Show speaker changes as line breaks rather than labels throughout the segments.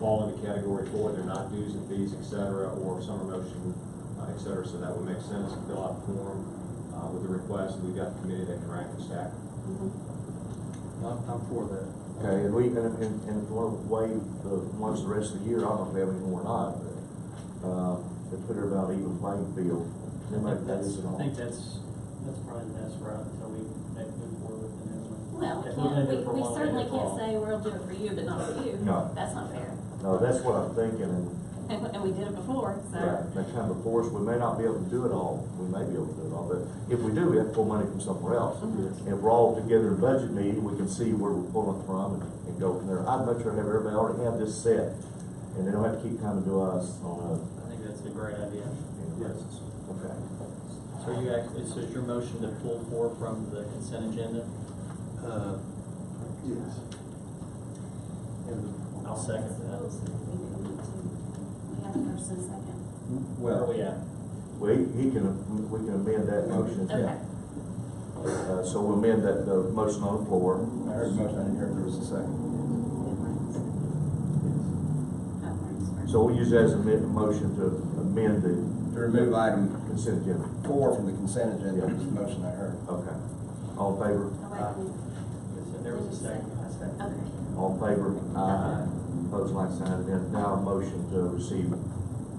fall into category four, they're not dues and fees, et cetera, or summer motion, uh, et cetera, so that would make sense, to fill out the form, uh, with the request, we've got committed at rank and stack.
I'm, I'm for that.
Okay, and we, and, and and if we want to waive the ones the rest of the year, I don't know if we have any more or not, but, uh, to put it about even playing field.
I
Anybody
think
got this at
that's, I
all?
think that's, that's probably the best route until we make move forward with the new one.
Well, we
If we're gonna
can't,
do
we,
it for
we
one,
certainly
do it for
can't
all.
say we'll do it for you, but not for you.
No.
That's not fair.
No, that's what I'm thinking, and,
And, and we did it before, so.
right, that kind of force, we may not be able to do it all, we may be able to do it all, but if we do, we have to pull money from somewhere else.
Mhm.
And if we're all together in a budget meeting, we can see where we're pulling it from and, and go from there. I'd much rather have everybody already have this set, and they don't have to keep coming to us on
I think that's a great idea.
a, yes, okay.
So you actually, so it's your motion to pull four from the consent agenda?
Uh, Yes. And
I'll second that.
We have a first and a second.
Where are we at?
We, he can, we can amend that motion.
Okay.
Uh, so we'll amend that, the motion on the floor.
I heard a motion, I didn't hear if there was a second.
So we'll use that as a amend, motion to amend the
To remove item
consent agenda.
four from the consent agenda, was the motion I heard.
Okay. All in favor?
So There was a second. I second.
Oh, Okay.
All in favor?
Aye.
Opposed, like sign, and then now a motion to receive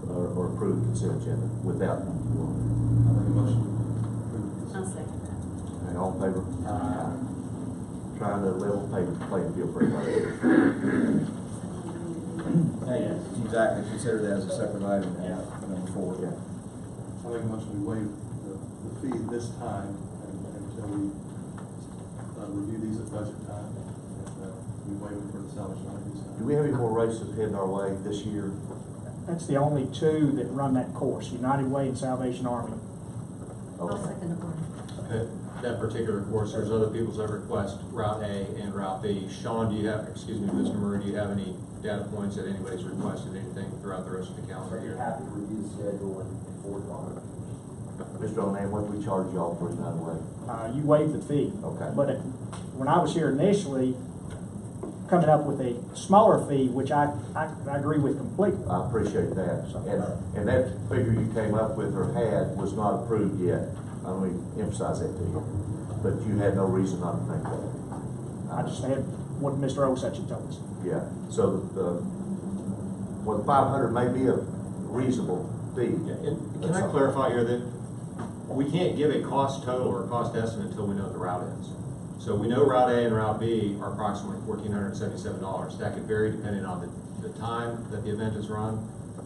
or, or approve consent agenda without.
I'll make a motion.
I'll second that.
Okay, all in favor?
Aye.
Trying to level pay, playing field for everybody.
Yes.
Exactly, consider that as a separate item, now, number four.
Yeah.
I'll make a motion to waive the, the fee this time and- until we, uh, review these at budget time. And, uh, we waive it for the salvation army this time.
Do we have any more races heading our way this year?
That's the only two that run that course, United Way and Salvation Army.
Okay.
the one.
That, that particular course, there's other people's that request Route A and Route B. Sean, do you have, excuse me, Mr. Murray, do you have any data points that anybody's requested anything throughout the rest of the calendar year?
happy to review the schedule and and forward on it.
Mr. O'Neil, what do we charge y'all for United Way?
Uh, you waived the fee.
Okay.
But it- when I was here initially, coming up with a smaller fee, which I, I, I agree with completely.
I appreciate that, and, and that figure you came up with or had was not approved yet, I mean, emphasize that to you, but you had no reason not to think that.
I just had what Mr. Osuch had told us.
Yeah, so the, well, five hundred may be a reasonable fee.
Yeah, and Can I clarify here that we can't give a cost total or a cost estimate until we know what the route ends? So we know Route A and Route B are approximately fourteen hundred and seventy-seven dollars. That could vary depending on the, the time that the event is run.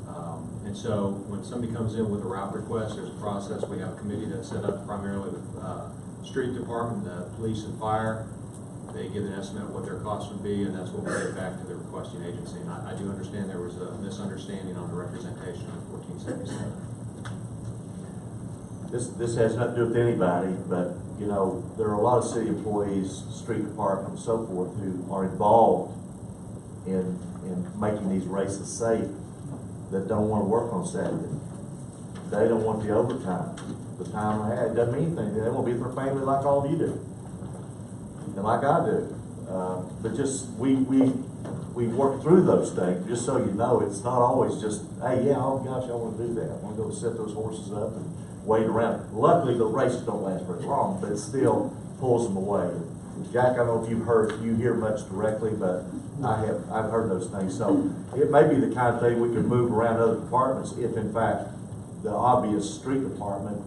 Um, And so when somebody comes in with a route request, there's a process. We have a committee that's set up primarily with, uh, street department, the police and fire. They give an estimate of what their cost would be, and that's what we get back to the requesting agency. And I, I do understand there was a misunderstanding on the representation of fourteen seventy-seven.
This, this has nothing to do with anybody, but, you know, there are a lot of city employees, street department and so forth, who are involved in, in making these races safe, that don't wanna work on Saturday. They don't want the overtime, the time they had, doesn't mean anything, they won't be with their family like all of you do. And like I do, uh, but just, we, we, we work through those things, just so you know, it's not always just, hey, yeah, oh gosh, I wanna do that, I wanna go set those horses up and wait around. Luckily, the races don't last very long, but it still pulls them away. Jack, I don't know if you've heard, you hear much directly, but I have, I've heard those things, so it may be the kind of thing we can move around other departments if in fact the obvious street department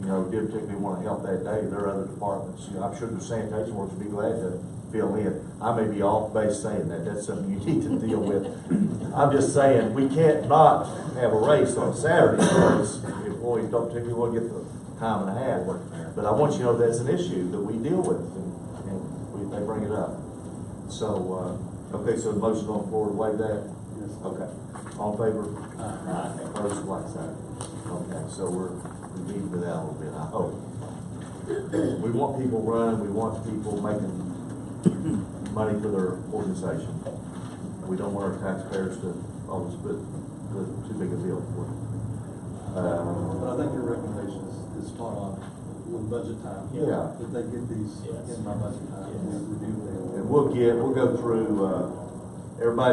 you know, did particularly want to help that day, there are other departments, you know, I'm sure the sanitation workers would be glad to fill in. I may be off base saying that, that's something you need to deal with. I'm just saying, we can't not have a race on Saturday because employees don't particularly want to get the time and a half. But I want you to know that's an issue that we deal with and, and we, they bring it up. So, uh, okay, so the motion on the floor to waive that?
Yes.
Okay, all in favor? Opposed, like sign. Okay, so we're, we're beating to that a little bit, I hope. We want people running, we want people making money for their organization. We don't want our taxpayers to always put, put too big a bill for it.
But I
Uh,
think your recommendation is, is spot on with budget time.
Yeah.
That they get these
Yes.
in by budget time
Yes.
and review them.
And we'll get, we'll go through, uh, everybody